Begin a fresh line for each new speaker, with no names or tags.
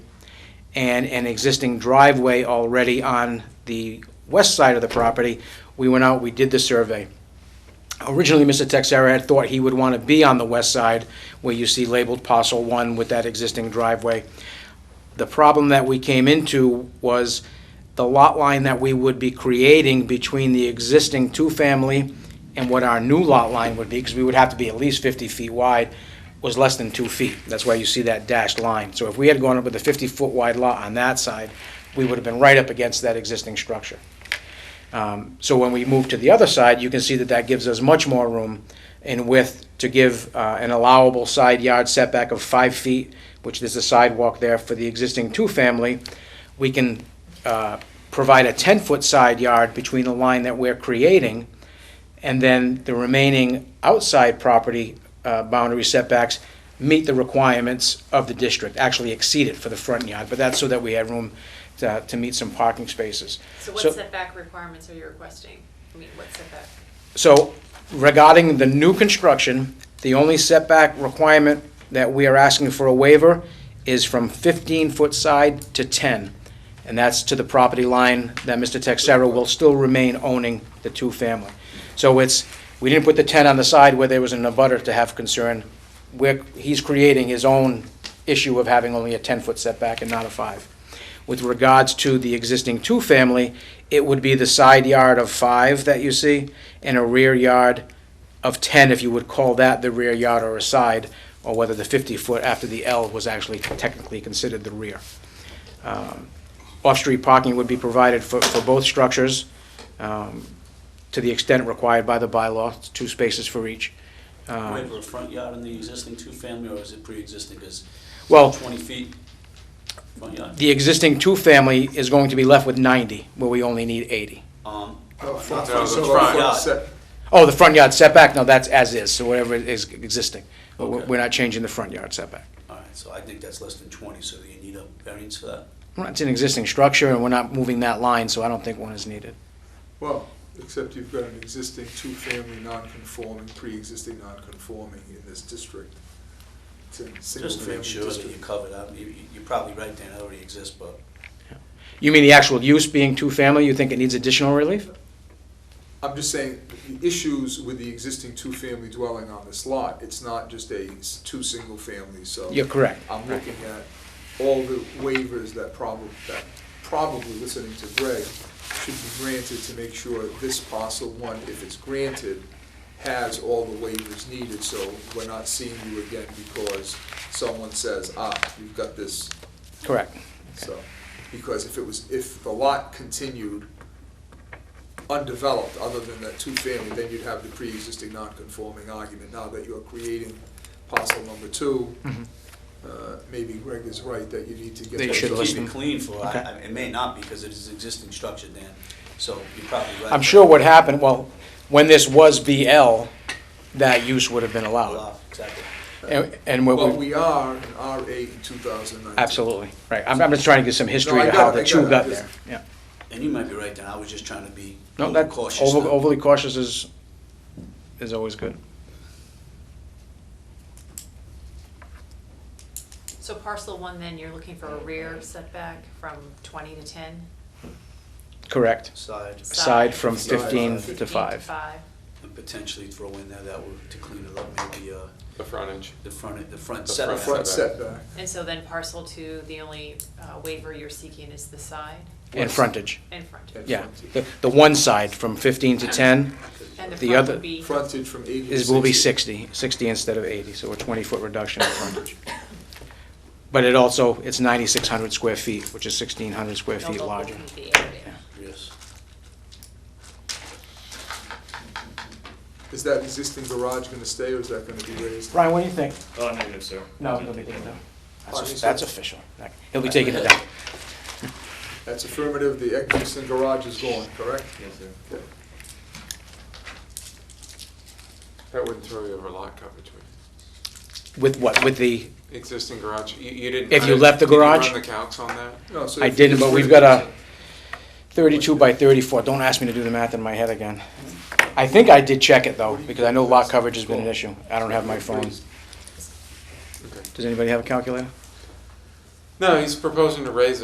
and an existing driveway already on the west side of the property. We went out, we did the survey. Originally, Mr. Texera had thought he would want to be on the west side where you see labeled parcel one with that existing driveway. The problem that we came into was the lot line that we would be creating between the existing two-family and what our new lot line would be, because we would have to be at least 50 feet wide, was less than two feet. That's why you see that dashed line. So if we had gone up with a 50-foot wide lot on that side, we would have been right up against that existing structure. Um, So when we move to the other side, you can see that that gives us much more room in width to give uh, an allowable side yard setback of five feet, which there's a sidewalk there for the existing two-family. We can uh, provide a 10-foot side yard between the line that we're creating and then the remaining outside property uh, boundary setbacks meet the requirements of the district, actually exceed it for the front yard, but that's so that we had room to to meet some parking spaces.
So what setback requirements are you requesting? I mean, what setback?
So regarding the new construction, the only setback requirement that we are asking for a waiver is from 15-foot side to 10, and that's to the property line that Mr. Texera will still remain owning the two-family. So it's, we didn't put the 10 on the side where there was an abutter to have concern. We're, he's creating his own issue of having only a 10-foot setback and not a 5. With regards to the existing two-family, it would be the side yard of five that you see, and a rear yard of ten, if you would call that the rear yard or a side, or whether the fifty-foot after the L was actually technically considered the rear. Um, Off-street parking would be provided for, for both structures, um, to the extent required by the bylaw, it's two spaces for each. Um,
Waiver of front yard in the existing two-family, or is it pre-existing, is
Well-
twenty feet front yard?
The existing two-family is going to be left with ninety, where we only need eighty.
Um,
No, front, front,
No, the
so uh,
front.
front set.
Oh, the front yard setback, no, that's as is, so whatever is existing. But We're
Okay.
we're not changing the front yard setback.
all right, so I think that's less than twenty, so you need a variance for that?
Well, It's an existing structure, and we're not moving that line, so I don't think one is needed.
Well, except you've got an existing two-family non-conforming, pre-existing non-conforming in this district. It's a
Just to
single-family
make sure that you
district.
cover that, you, you- you're probably right, Dan, it already exists, but
You mean the actual use being two-family, you think it needs additional relief?
I'm just saying, the issues with the existing two-family dwelling on this lot, it's not just a, s- two single families, so.
You're correct.
I'm looking at all the waivers that probably, that probably, listening to Greg, should be granted to make sure this parcel one, if it's granted, has all the waivers needed, so we're not seeing you again because someone says, ah, you've got this,
Correct.
so. Because if it was, if the lot continued undeveloped, other than that two-family, then you'd have the pre-existing non-conforming argument. Now that you're creating parcel number two, uh, maybe Greg is right that you need to get.
Mm-hmm. They
that
should
done.
keep
listen.
it clean for, I,
Okay.
I- it may not, because it is existing structure, Dan, so you're probably right.
I'm sure what happened, well, when this was BL, that use would have been allowed.
Allow, Exactly.
And- And what
But
we,
we are in R eight in two thousand nineteen.
absolutely, right. I'm, I'm just trying to get some history
I
of
got
how
it, I
the
got
two
it,
got
just-
there, yeah.
And you might be right, Dan, I was just trying to be
No, that,
cautious.
over-
now.
overly cautious is, is always good.
So parcel one, then, you're looking for a rear setback from twenty to ten?
Correct.
Side,
Aside from
Side.
15
Fifteen
to 5.
and potentially throw in there that would, to clean it up, maybe, uh,
The frontage.
the front, the front
The front
setback.
Front setback,
And so then parcel two, the only uh, waiver you're seeking is the side
And
Yes.
frontage,
and front.
yeah.
Yeah.
The- The one side from 15 to 10
And
The
the front
other-
would be,
frontage from eighty to
is, will be 60, 60 instead of 80, so a 20-foot reduction in frontage. But it also, it's 9,600 square feet, which is 1,600 square
no
feet
local
larger.
community area.
Yes.
Is that existing garage gonna stay or is that gonna be raised?
Brian, what do you think?
Uh, negative, sir.
No, he'll be taking it down.
I think
That's
so.
that's official. He'll be taking it down.
That's affirmative, the existing garage is gone, correct?
Yes, sir.
Okay.
That wouldn't throw you over lot coverage. would
With what? With the,
it? Existing garage, you, you didn't.
If you
I-
left the garage?
Did you run the calcs on that?
No, so
I
if you
didn't,
just
but
went-
we've got a 32 by 34. Don't ask me to do the math in my head again. I think I did check it, though, because I know lot coverage has been an issue. I don't have my phone.
Okay.
Does anybody have a calculator?
No, he's proposing to raise